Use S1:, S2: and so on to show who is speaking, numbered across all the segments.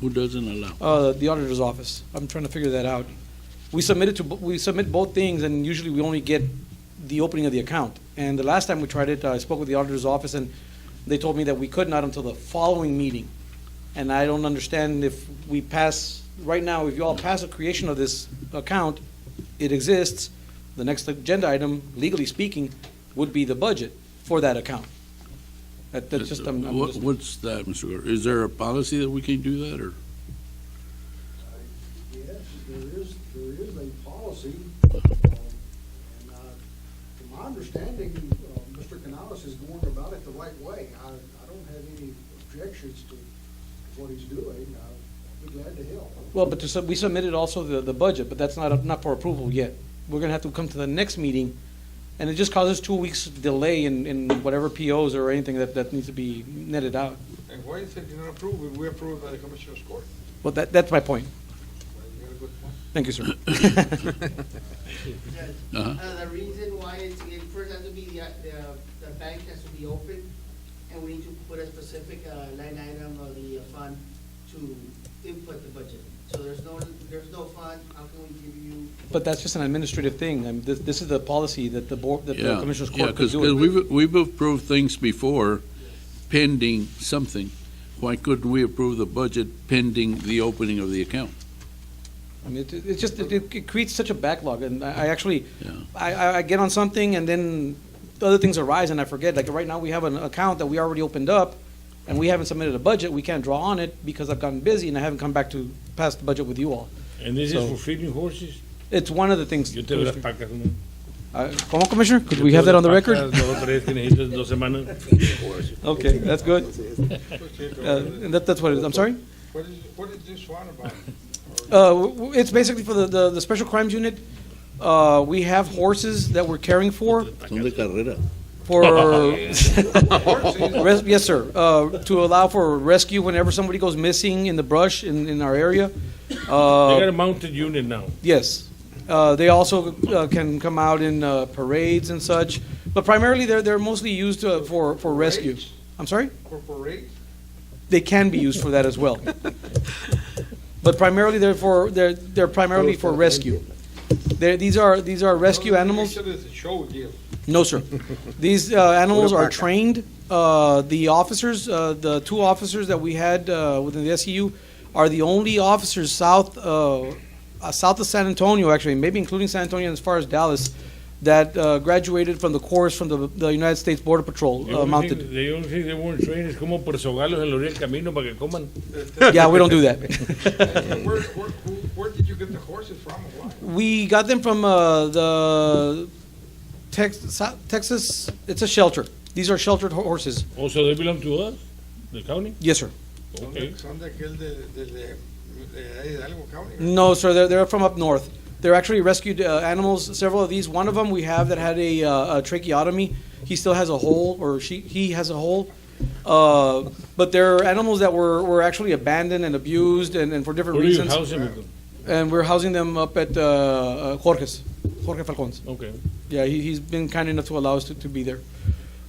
S1: Who doesn't allow?
S2: Uh, the auditor's office. I'm trying to figure that out. We submitted to, bo- we submit both things, and usually we only get the opening of the account. And the last time we tried it, I spoke with the auditor's office, and they told me that we could not until the following meeting. And I don't understand if we pass, right now, if you all pass a creation of this account, it exists, the next agenda item, legally speaking, would be the budget for that account. That, that's just, I'm, I'm
S1: What-
S2: just-
S1: Uh, What's that, Mr. Gore? Is there a policy that we can't do that, or?
S3: Yes, there is, there is a policy, um, and, uh, to my understanding, uh, Mr. Canales is going about it the right way. I, I don't have any objections to what he's doing, I'd be glad to help.
S2: Well, but to sub- we submitted also the, the budget, but that's not, not for approval yet. We're gonna have to come to the next meeting, and it just causes two weeks delay in, in whatever POs or anything that, that needs to be netted out.
S4: And why is it not approved? We- We approved by the Commissioner's Court.
S2: Well, that, that's my point.
S4: Well, You got a good point.
S2: Thank you, sir.
S5: Judge,
S1: Uh-huh.
S5: uh, the reason why it's, it first has to be, the, uh, the- the bank has to be open, and we need to put a specific uh, line item of the uh, fund to input the budget. So there's no, there's no fund, how can we give you?
S2: But that's just an administrative thing, and this, this is the policy that the board, that the
S1: Yeah,
S2: Commissioners
S1: yeah,
S2: Court could
S1: because
S2: do it.
S1: we've, we've approved things before pending something. Why couldn't we approve the budget pending the opening of the account?
S2: I mean, it, it's just, it, it creates such a backlog, and I, I actually,
S1: Yeah.
S2: I, I, I get on something, and then the other things arise, and I forget, like, right now, we have an account that we already opened up, and we haven't submitted a budget, we can't draw on it, because I've gotten busy, and I haven't come back to pass the budget with you all.
S6: And this
S2: So-
S6: is for feeding horses?
S2: It's one of the things.
S6: Yo te veo las
S2: Commissioner.
S6: pacas. ¿no?
S2: Uh, ¿Cómo, Commissioner? Could
S6: Yo
S2: we
S6: te
S2: have
S6: veo
S2: that on the
S6: las pacas,
S2: record?
S6: Dos o tres que necesitas en dos semanas.
S2: Okay, that's good. Uh, and that, that's what it is, I'm sorry?
S4: What is, what is this one about?
S2: Uh, w- w- it's basically for the, the, the Special Crimes Unit, uh, we have horses that we're caring for, for, res- yes, sir, uh, to allow for rescue whenever somebody goes missing in the brush in, in our area.
S6: They
S2: Uh,
S6: got a mounted unit now.
S2: Yes. Uh, They also uh, can come out in uh, parades and such, but primarily they're, they're mostly used uh, for, for rescue.
S4: Parades?
S2: I'm sorry?
S4: For parade?
S2: They can be used for that as well. But primarily they're for, they're, they're primarily for rescue. They're, these are, these are rescue animals.
S4: It's a show deal.
S2: No, sir. These uh, animals are trained. Uh, The officers, uh, the two officers that we had uh, within the SEU are the only officers south, uh, uh, south of San Antonio, actually, maybe including San Antonio and as far as Dallas, that uh, graduated from the course from the the United States Border Patrol
S6: The
S2: uh,
S6: only
S2: mounted.
S6: thing- the only thing they weren't trained es como por sogalos en la orilla del camino para que coman.
S2: Yeah, we don't do that.
S4: Where, where, who- where did you get the horses from and why?
S2: We got them from uh, the Tex- Sou- Texas, it's a shelter. These are sheltered ho- horses.
S6: Also, Oh, they belong to us, the county?
S2: Yes, sir.
S4: Son
S6: Okay.
S4: de- Son de aquel de, de, de- de Hidalgo County.
S2: No, sir. They're, they're from up north. They're actually rescued uh, animals. Several of these. One of them we have that had a, uh, a tracheotomy. He still has a hole, or she he has a hole. Uh, but they're animals that were, were actually abandoned and abused, and, and for different
S6: Where do you
S2: reasons.
S6: house them with them?
S2: and we're housing them up at uh, uh, Jorge's, Jorge Falcón's.
S6: Okay.
S2: Yeah, he, he's been kind enough to allow us to, to be there.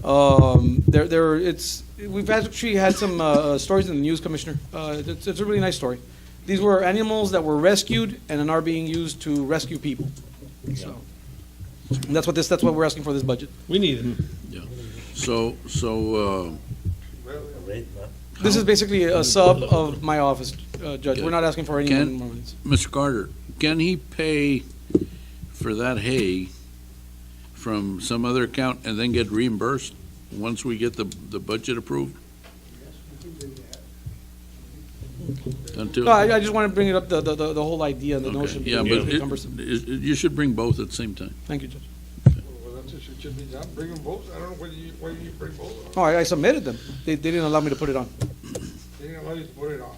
S2: Um, there, there, it's, we've actually had some, uh, stories in the news, Commissioner. Uh, it's, it's a really nice story. These were animals that were rescued and then are being used to rescue people. So, and that's what this, that's what we're asking for this budget.
S6: We need them.
S1: So, so, uh,
S2: This is basically a sub of my office, uh, Judge. We're not asking for any
S1: Ken?
S2: more monies.
S1: Mr. Carter, can he pay for that hay from some other account and then get reimbursed once we get the, the budget approved? Until.
S2: No, I, I just want to bring it up, the, the, the the whole idea and the
S1: Okay,
S2: notion.
S1: Yeah,
S2: because
S1: but
S2: it's cumbersome.
S1: it- it- you should bring both at the same time.
S2: Thank you, Judge.
S4: Well, that's what should be done. Bring them both. I don't know whether you, why you bring both.
S2: No, Oh, I, I submitted them. They, they didn't allow me to put it on.
S4: They didn't allow you to put it on.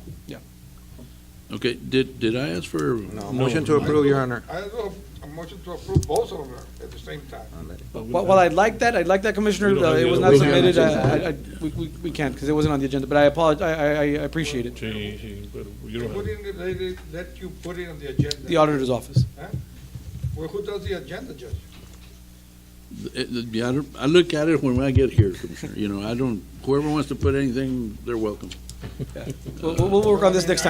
S1: Okay, did, did I ask for?
S7: No, motion to approve, Your Honor.
S4: I don't know, a motion to approve both of them at the same time.
S2: Well, well, I'd like that, I'd like that, Commissioner,
S6: We don't
S2: Uh,
S6: have
S2: it
S6: the
S2: was
S6: other
S2: not
S6: one.
S2: submitted, I, I, I- we, we, we can't, because it wasn't on the agenda, but I apologize, I, I, I appreciate it,
S6: Sí, sí, pero you
S4: They
S6: don't have-
S4: put in, they they let you put it on the agenda.
S2: the auditor's office.
S4: Well, who does the agenda, Judge?
S1: It- it- eh, yeah, I don't- I look at it when I get here, Commissioner, you know, I don't, whoever wants to put anything, they're welcome.
S2: We'll, we'll we'll work on this next time.